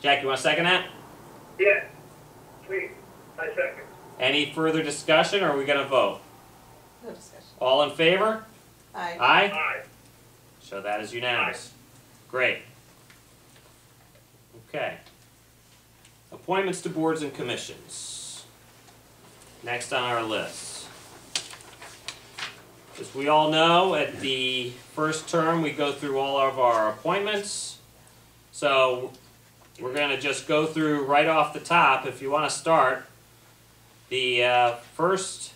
Jack, you want to second that? Yeah, please, I second. Any further discussion or are we going to vote? No discussion. All in favor? Aye. Aye? Aye. So that is unanimous. Great. Okay. Appointments to boards and commissions. Next on our list. As we all know, at the first term, we go through all of our appointments. So we're gonna just go through right off the top, if you wanna start. The uh, first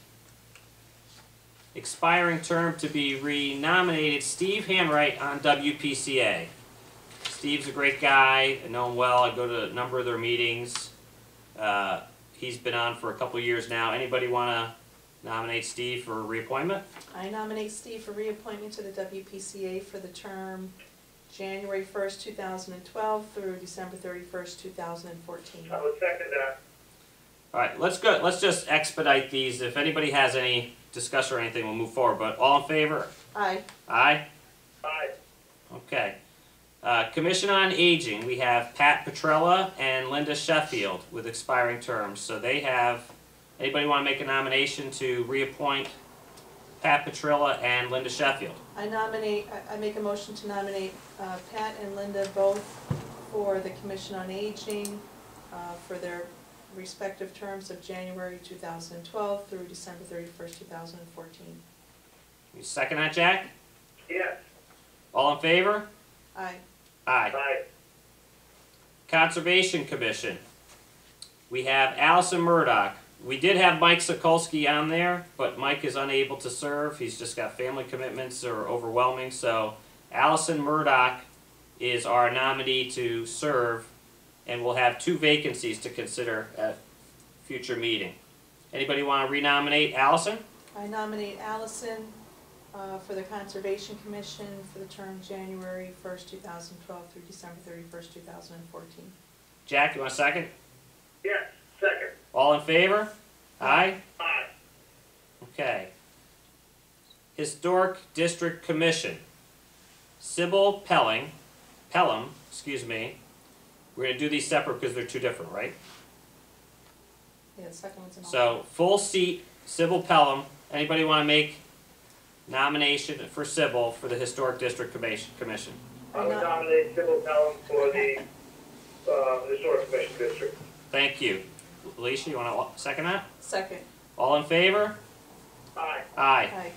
expiring term to be renominated, Steve Handwright on WPCA. Steve's a great guy. I know him well. I go to a number of their meetings. Uh, he's been on for a couple of years now. Anybody want to nominate Steve for reappointment? I nominate Steve for reappointment to the WPCA for the term January first, two thousand and twelve through December thirty-first, two thousand and fourteen. I would second that. All right, let's go. Let's just expedite these. If anybody has any discussion or anything, we'll move forward. But all in favor? Aye. Aye. Aye. Okay. Uh, Commission on Aging, we have Pat Petrella and Linda Sheffield with expiring terms. So they have, anybody want to make a nomination to reappoint Pat Petrella and Linda Sheffield? I nominate, I, I make a motion to nominate, uh, Pat and Linda both for the Commission on Aging, uh, for their respective terms of January two thousand and twelve through December thirty-first, two thousand and fourteen. You second that, Jack? Yes, All in favor? Aye. Aye. aye. Conservation Commission. We have Allison Murdoch. We did have Mike Sokolsky on there, but Mike is unable to serve. He's just got family commitments that are overwhelming. So Allison Murdoch is our nominee to serve, and we'll have two vacancies to consider at future meeting. Anybody want to renominate Allison? I nominate Allison uh, for the Conservation Commission for the term January 1st, 2012 through December 31st, 2014. Jack, you want a second? Yes, second. All in favor? Aye? Aye. Okay. Historic District Commission. Sybil Pelling, Pelham, excuse me. We're gonna do these separate because they're two different, right? Yeah, the second one's an alternate. So, full seat, Sybil Pelham. Anybody wanna make nomination for Sybil for the Historic District Commission? Commission? I would nominate Sybil Pelham for the, uh, Historic Commission District. Thank you. Alicia, you wanna second that? Second, All in favor? Aye. Aye. aye.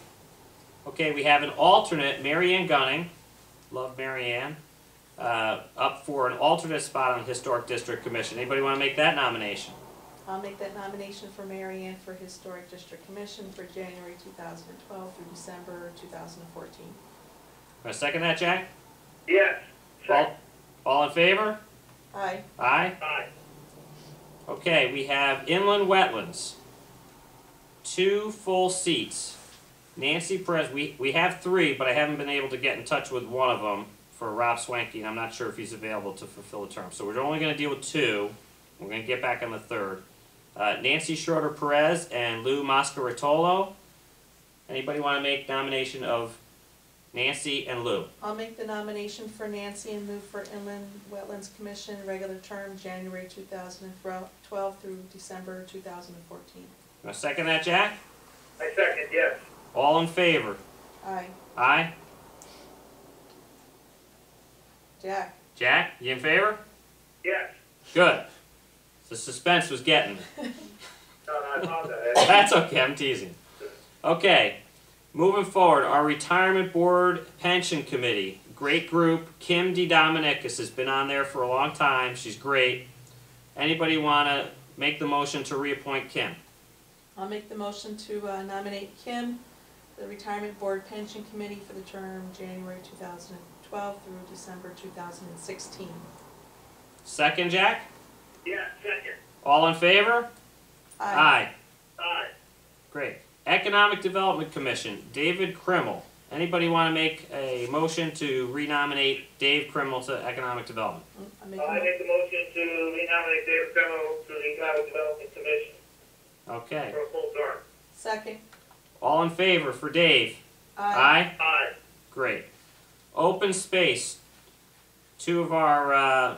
Okay, we have an alternate, Mary Ann Gunning, love Mary Ann, uh, up for an alternate spot on Historic District Commission. Anybody want to make that nomination? I'll make that nomination for Mary Ann for Historic District Commission for January 2012 through December 2014. Want to second that, Jack? Yes, second. All, all in favor? Aye. Aye? Aye. Okay, we have Inland Wetlands. Two full seats. Nancy Perez, we, we have three, but I haven't been able to get in touch with one of them for Rob Swanky, and I'm not sure if he's available to fulfill the term. So we're only gonna deal with two. We're gonna get back on the third. Uh, Nancy Schroeder Perez and Lou Mascaritolo. Anybody wanna make nomination of Nancy and Lou? I'll make the nomination for Nancy and move for Inland Wetlands Commission, regular term, January 2012 through December 2014. Wanna second that, Jack? I second, yes. All in favor? Aye. Aye? Jack? Jack, you in favor? Yes. Good. The suspense was getting me. No, no, I apologize. That's okay, I'm teasing. Okay, moving forward, our retirement board pension committee, great group. Kim D. Dominicus has been on there for a long time. She's great. Anybody want to make the motion to reappoint Kim? I'll make the motion to uh, nominate Kim, for the Retirement Board Pension Committee for the term January 2012 through December 2016. Second, Jack? Yes, second. All in favor? Aye. Aye. Great. Economic Development Commission, David Krimmel. Anybody want to make a motion to renominate Dave Krimmel to Economic Development? I make a I mo- make the motion to renominate David Cremo to the Economic Development Commission Okay. for a full term. Second. All in favor for Dave? Aye. Great. Open space. Two of our uh,